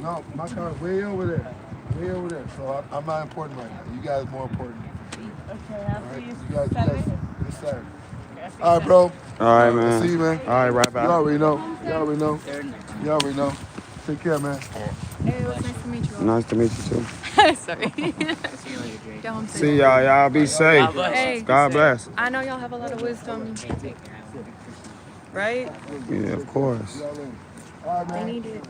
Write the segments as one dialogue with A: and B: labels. A: No, my car's way over there, way over there. So I, I'm not important right now. You guys more important.
B: Okay,
A: All
B: I'll
A: right,
B: see you
A: you guys, you guys,
B: Saturday.
A: this Saturday.
B: Okay, I'll see you
A: All right, bro.
C: All right,
A: I'll
C: man.
A: See you, man.
C: All right, right
A: You
C: back.
A: already know. You already know.
B: Saturday.
A: You already know. Take care, man.
D: Hey, it was nice to meet you.
C: Nice to meet you too.
D: all. Sorry. Go home
C: See
D: safe.
C: y'all. Y'all be safe.
D: Hey.
C: God bless.
D: I know y'all have a lot of wisdom, right?
C: Yeah, of course.
A: All right,
D: I
A: man.
D: need it.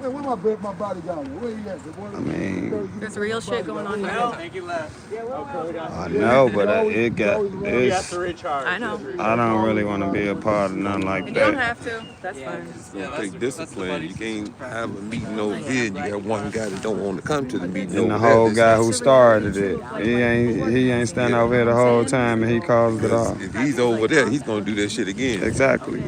A: Hey, where my big- my bodyguard? at? Where he at? The boy-
C: I mean,
D: There's real shit going on
E: I
D: here.
E: think you left.
C: I know, but uh, it got
E: You have
C: it's.
E: to recharge.
D: I know.
C: I don't really want to be a part of nothing
D: You
C: like
D: don't
C: that.
D: have to. That's fine.
E: It's
F: gonna take discipline. You can't have a meeting over here. You got one guy that don't want to come to the meeting.
C: And the
F: over there.
C: whole
F: That's-
C: guy who started it, he ain't he ain't standing over here the whole time, and he caused it all.
F: If he's over there, he's gonna do that shit again.
C: Exactly.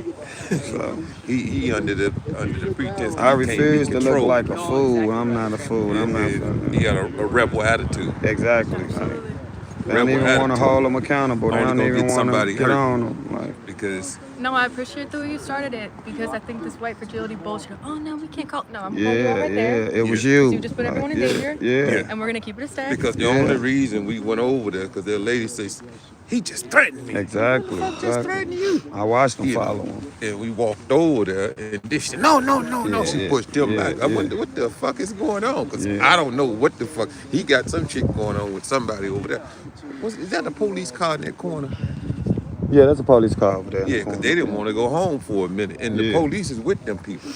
C: So
F: He he under the under the pretense.
C: I
F: he can't be
C: refuse to look
F: controlled.
C: like a fool. I'm not a fool. I'm not.
F: He got a, a rebel attitude.
C: Exactly. Like, they don't
F: Rebel
C: even want to
F: attitude.
C: hold them accountable. They
F: Only
C: don't
F: gonna
C: even
F: get
C: want to
F: somebody
C: get
F: hurt.
C: on them. Like,
F: Because
D: No, I appreciate the way you started it because I think this white fragility bullshit. Oh no, we can't call. No, I'm calling you out
C: yeah,
D: right
C: yeah,
D: there.
C: it was
F: Yeah.
C: you.
D: You just put everyone
C: Like,
D: in
C: yeah,
D: danger.
C: Yeah.
F: Yeah.
D: And we're gonna keep it a stack.
F: because the
C: Yeah.
F: only reason we went over there because the lady says he just threatened me.
C: Exactly. exactly. I watched them
F: Yeah.
C: follow him.
F: And we walked over there, and this shit, no, no, no, no.
C: Yeah,
F: she
C: yeah,
F: pushed him
C: yeah,
F: back. I
C: yeah.
F: wonder what the fuck is going on, cause
C: Yeah.
F: I don't know what the fuck. He got some shit going on with somebody over there. Was, is that the police car in that corner?
C: Yeah, that's a police car over there. in the
F: Yeah, cause
C: corner.
F: they didn't want to go home for a minute, and the
C: Yeah.
F: police is with them people.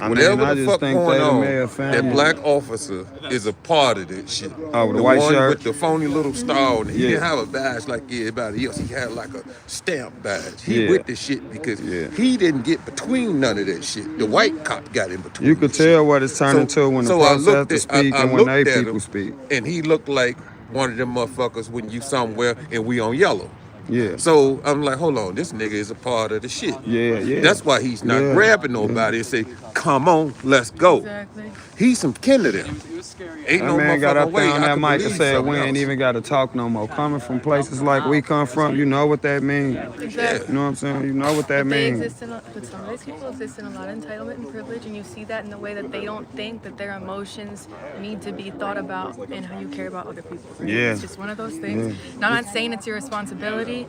C: I mean,
F: Whatever
C: I
F: the
C: just
F: fuck
C: think
F: going
C: they the
F: on,
C: mayor
F: that
C: family.
F: black officer is a part of that shit.
C: Oh, with the white
F: one
C: shirt?
F: with the phony little star. on it. He
C: Yeah.
F: didn't have a badge like everybody else. He had like a stamp badge. He
C: Yeah.
F: with the shit because
C: Yeah.
F: he didn't get between none of that shit. The white cop got in between.
C: You could
F: the shit.
C: tell what it's turning to when the
F: so I looked
C: protesters
F: at- I-
C: speak
F: I
C: and when they
F: looked at
C: people
F: him,
C: speak.
F: And he looked like one of them motherfuckers when you somewhere and we on yellow.
C: Yeah.
F: So I'm like, hold on, this nigga is a part of the shit.
C: Yeah, yeah.
F: That's why he's not
C: Yeah.
F: grabbing nobody and say, come on, let's go.
D: Exactly.
F: He's some kin to them.
E: It was scary.
F: Ain't
C: That
F: no
C: man got
F: motherfucking
C: up
F: way
C: there on
F: I
C: that
F: can
C: mic and
F: believe
C: said,
F: something
C: we ain't
F: else."
C: even got to talk no more. Coming from places like we come from, you know what that means.
D: Exactly.
C: You know what I'm saying? You know what that
D: They
C: means.
D: exist in, a, but some of these people exist in a lot of entitlement and privilege, and you see that in the way that they don't think that their emotions need to be thought about and how you care about other people. right?
C: Yeah.
D: It's just one of those things. Now, I'm not saying it's your responsibility.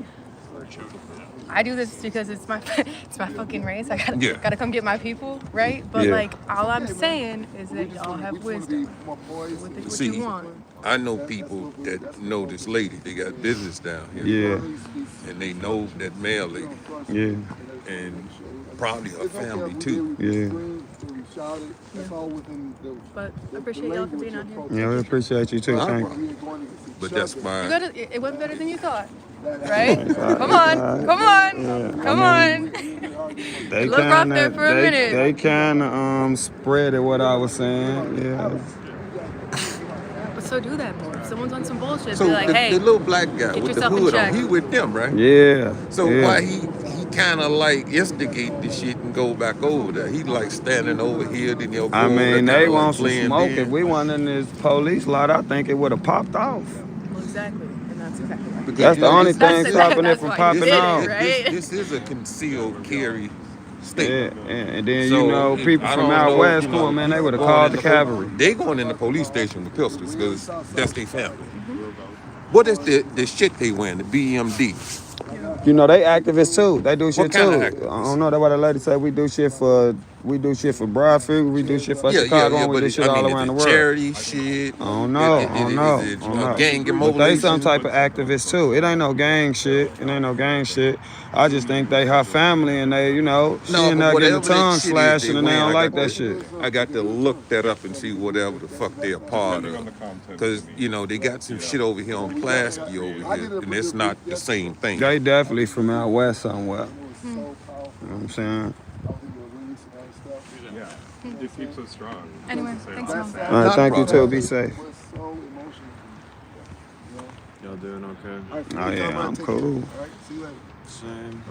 D: I do this because it's my it's my fucking race. I gotta,
F: Yeah.
D: gotta come get my people, right? But
C: Yeah.
D: like, all I'm saying is that y'all have wisdom.
A: My boys.
D: What, the, what
F: See,
D: you want?
F: I know people that know this lady. They got business down here.
C: Yeah,
F: And they know that male lady
C: yeah,
F: and probably her family too.
C: Yeah.
D: But I appreciate y'all for being on here.
C: yeah. We appreciate you too.
F: No
C: Thank you.
F: problem. But that's
D: You
F: why
D: got it. It went better than you thought, right? come
C: Alright.
D: on, come on, come
C: I
D: on.
C: They
D: Look out there for a
C: they,
D: minute.
C: They kind of um spread it what I was saying. Yeah,
D: But so do that more. If someone's on some bullshit,
F: So
D: be like,
F: the,
D: hey,
F: the little black guy
D: get
F: with the
D: yourself in
F: hood
D: check.
F: on, he with them, right?
C: yeah.
F: So
C: yeah.
F: why he he kind of like instigate the shit and go back over there? He like standing over here, then he'll. Go
C: I
F: over there,
C: mean,
F: kinda
C: they
F: like
C: want some
F: blend
C: smoke.
F: in.
C: If we weren't in this police lot, I think it would have popped off.
D: well, exactly. And that's exactly right.
F: Because
C: That's the
F: you know,
C: only
F: this-
C: thing
D: That's-
C: stopping it
D: that's
C: from
D: why you
C: popping
D: did it,
C: off.
D: right?
F: This, this is a concealed carry
C: Yeah,
F: state.
C: and, and then
F: So,
C: you know people
F: I
C: from
F: don't
C: out
F: know,
C: west,
F: you
C: come
F: know,
C: on, man, they would have
F: going
C: called
F: in
C: the
F: pol-
C: cavalry.
F: They going in the police station with pistols because that's their family. What is the, the shit they wearing? The BMD.
C: You know they activists too. They do shit
F: kind
C: too.
F: of
C: I
F: activists?
C: don't know. That's why the lady said we do shit for we do shit for Bradford, we do shit for Chicago, and we do
F: it-
C: shit
F: I mean,
C: all
F: is
C: around
F: it
C: the world.
F: Charity shit.
C: I don't know.
F: Is it-
C: I
F: is
C: don't
F: it-
C: know.
F: is it
C: I don't
F: a
C: know.
F: gang
C: But they some
F: immobilization?
C: type of activists too. It ain't no gang shit. It ain't no gang shit. I just think they her family and they, you know, she
F: No,
C: and
F: but
C: her
F: whatever
C: getting the
F: that
C: tongue
F: shit is
C: slashed and they
F: wearing,
C: don't
F: I
C: like
F: got
C: that
F: to-
C: shit.
F: I got to look that up and see whatever the fuck they're part of. Because, you know, they got some shit over here on Plasky over here, and it's not the same thing.
C: They definitely from out west somewhere. You know what I'm saying?
E: Yeah. It keeps us strong.
D: Anyway, thanks, mom.
C: All right,
F: Not a
C: thank you too.
F: problem.
C: Be safe.
E: Y'all doing okay?
C: Oh, yeah, I'm cool.
G: Same.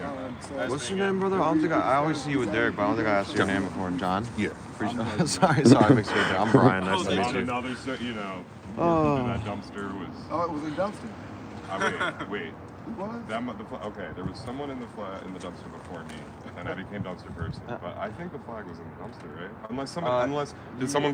G: What's your name, brother? I don't think I, I always see you with Derek, but I don't think I asked your name before. John.
F: Yeah.
G: Appreciate- sorry, sorry, I mixed you up there. I'm Brian. Nice to meet
E: On
G: you.
E: Oh, another, se- you know,
G: Oh.
E: working in that dumpster was.
A: Oh, it was in Dumpster.
E: I wait, wait.
A: It was?
E: That mu- the fla- okay. There was someone in the flag in the dumpster before me, and I became dumpster person. But I think the flag was in the dumpster, right? Unless someone,
G: Uh,
E: unless did someone